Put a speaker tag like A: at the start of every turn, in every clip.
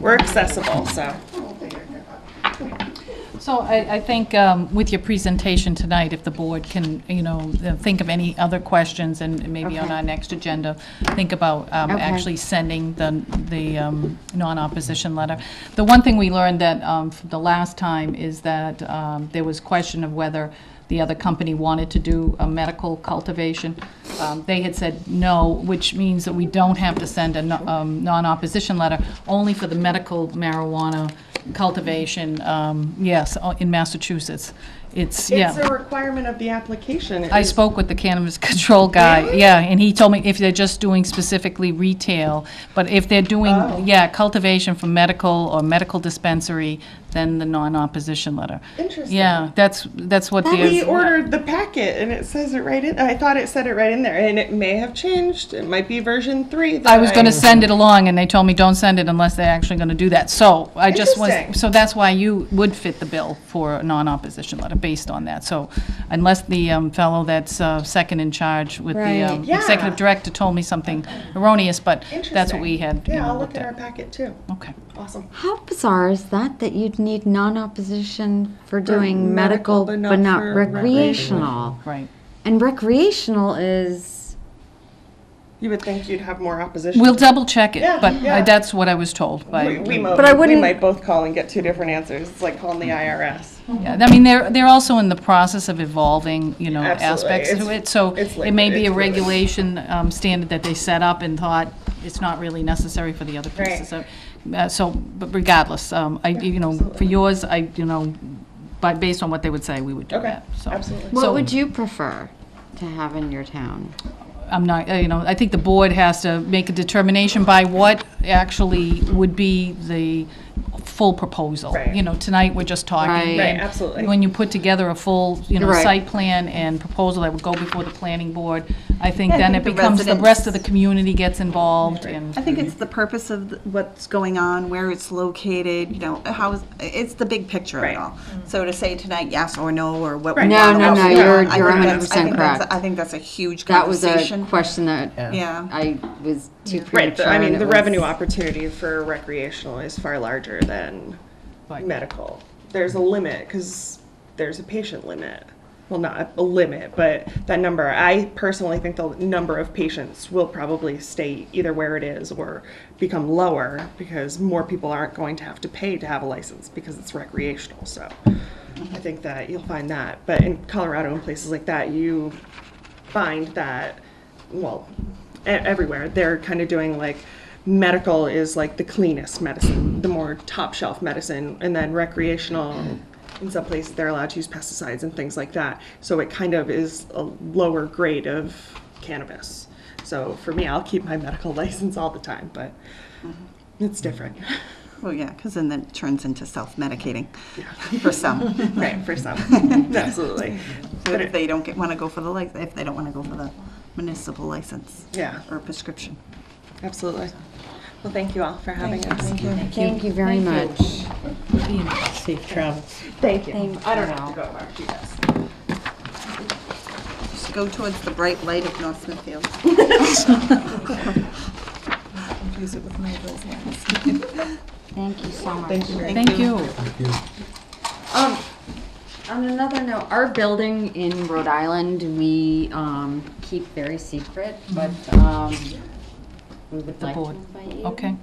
A: we're accessible, so.
B: So I, I think um, with your presentation tonight, if the board can, you know, uh, think of any other questions and maybe on
C: Okay.
B: our next agenda, think about um,
C: Okay.
B: actually sending the, the um, non-opposition letter. The one thing we learned that, um, from the last time is that um, there was question of whether the other company wanted to do a medical cultivation. Um, They had said no, which means that we don't have to send a no- um, non-opposition letter, only for the medical marijuana cultivation, um, yes, uh, in Massachusetts. It's,
A: It's a
B: yeah.
A: requirement of the application.
B: I
A: It's-
B: spoke with the cannabis control guy, yeah, and he told me if they're just doing specifically retail, but if they're
A: Oh.
B: doing, yeah, cultivation for medical or medical dispensary, then the non-opposition letter.
A: Interesting.
B: Yeah, that's, that's what they're.
A: We ordered the packet and it says it right in, I thought it said it right in there and it may have changed. It might be version three. that
B: I was gonna send it along, and they told me, don't send it unless they're actually gonna do that, so I just was,
A: Interesting.
B: so that's why you would fit the bill for a non-opposition letter, based on that, so unless the um, fellow that's uh, second in charge with the
C: Right.
B: um,
A: Yeah.
B: executive director told me something erroneous, but that's what
A: Interesting.
B: we had, you
A: Yeah,
B: know,
A: I'll look
B: looked
A: at our
B: at.
A: packet too.
B: Okay,
A: Awesome.
C: How bizarre is that, that you'd need non-opposition for doing
A: medical,
C: medical
A: but
C: but
A: not
C: not
A: for
C: recreational?
B: right.
C: And recreational is,
A: You would think you'd have more opposition.
B: We'll double-check
A: Yeah,
B: it, but
A: yeah.
B: uh, that's what I was told
A: We,
B: by,
A: we mo-
C: But I
A: We
C: wouldn't-
A: might both call and get two different answers. It's like calling the
B: Mm-hmm.
A: IRS.
B: Yeah, I mean, they're, they're also in the process of evolving, you know,
A: Absolutely.
B: aspects to
A: It's-
B: it, so
A: it's
B: it may
A: liquid,
B: be
A: it's
B: a
A: fluid.
B: regulation um, standard that they set up and thought it's not really necessary for the other
A: Right.
B: pieces. So, uh, So, but regardless, um, I, you know, for yours, I, you know, but based on what they would say, we would do
A: Okay,
B: that, so.
A: absolutely.
C: what
B: So-
C: would you prefer to have in your town?
B: I'm not, uh, you know, I think the board has to make a determination by what actually would be the full proposal.
A: Right.
B: You know, tonight, we're just talking.
C: Right.
B: and
A: Right, absolutely.
B: When you put together a full, you know,
C: Right.
B: site plan and proposal that would go before the planning board, I think then it
D: think the
B: becomes, the rest of the community gets involved and.
D: I think it's the purpose of th- what's going on, where it's located, you know, how, is- it's the big picture of
A: Right.
D: it all. So to say tonight, yes or no, or what we
A: Right.
D: want.
A: No,
D: or
A: no,
D: what
A: no,
D: we don't,
A: you're-
D: I think
C: you're
D: that's- I
C: 100%
D: think that's-
C: correct.
D: I think that's a huge
C: That was
D: conversation.
C: a question that
D: Yeah.
C: I was too
A: Right,
C: premature.
A: the- I mean,
C: and
A: the
C: it was-
A: revenue opportunity for recreational is far larger than
B: Right.
A: medical. There's a limit, because there's a patient limit. Well, not a limit, but that number, I personally think the number of patients will probably stay either where it is or become lower, because more people aren't going to have to pay to have a license, because it's recreational, so. I think that you'll find that, but in Colorado and places like that, you find that, well, e- everywhere, they're kind of doing like medical is like the cleanest medicine, the more top shelf medicine, and then recreational. In some places, they're allowed to use pesticides and things like that. So it kind of is a lower grade of cannabis. So for me, I'll keep my medical license all the time, but it's different.
D: Well, yeah, because then it turns into self-medicating for some.
A: Right, for some. Absolutely.
D: So
A: But
D: if
A: it-
D: they don't get, want to go for the, lic- if they don't want to go for the municipal license.
A: Yeah.
D: Or prescription.
A: Absolutely. Well, thank you all for having us.
C: Thank you very much.
E: Safe travels.
A: Thank you.
C: Thank
A: I don't have
C: you.
A: to go over. You guys.
D: Just go towards the bright light of North Smithfield. Confuse it with Mayville's lens.
C: Thank you so much.
B: Thank you.
C: Um, on another note, our building in Rhode Island, we, um, keep very secret, but, um, we would
B: The
C: like to
B: board. Oh.
C: invite you.
B: Okay,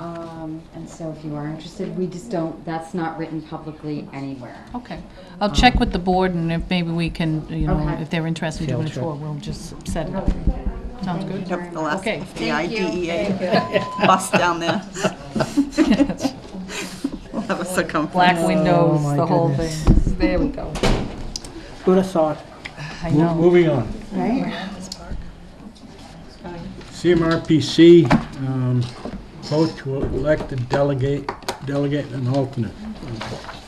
C: Um, and so if you are interested, we just don't, that's not written publicly anywhere.
B: okay. I'll check with the board and if maybe we can, you know,
C: Okay.
B: if they're interested in doing it for, we'll just set it up. Sounds good?
D: Yep, the last
B: Okay.
D: FBI,
C: Thank you.
D: DEA E bus down there. We'll have a circumference.
B: Black windows,
E: Oh, my
B: the whole thing.
E: goodness.
B: There we go.
E: Who'd have thought?
B: I
E: Mo-
B: know.
E: Moving on. CMRPC, um, vote to elect a delegate, delegate and alternate.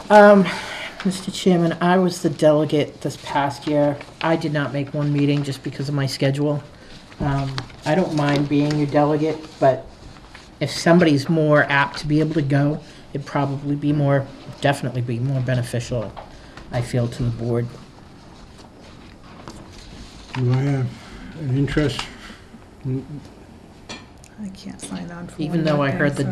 F: Um, Mr. Chairman, I was the delegate this past year. I did not make one meeting just because of my schedule. Um, I don't mind being your delegate, but if somebody's more apt to be able to go, it'd probably be more, definitely be more beneficial, I feel, to the board.
E: Do I have an interest
G: I can't sign on for
F: Even
G: one
F: though
G: more
F: I
G: thing,
F: heard the
G: so-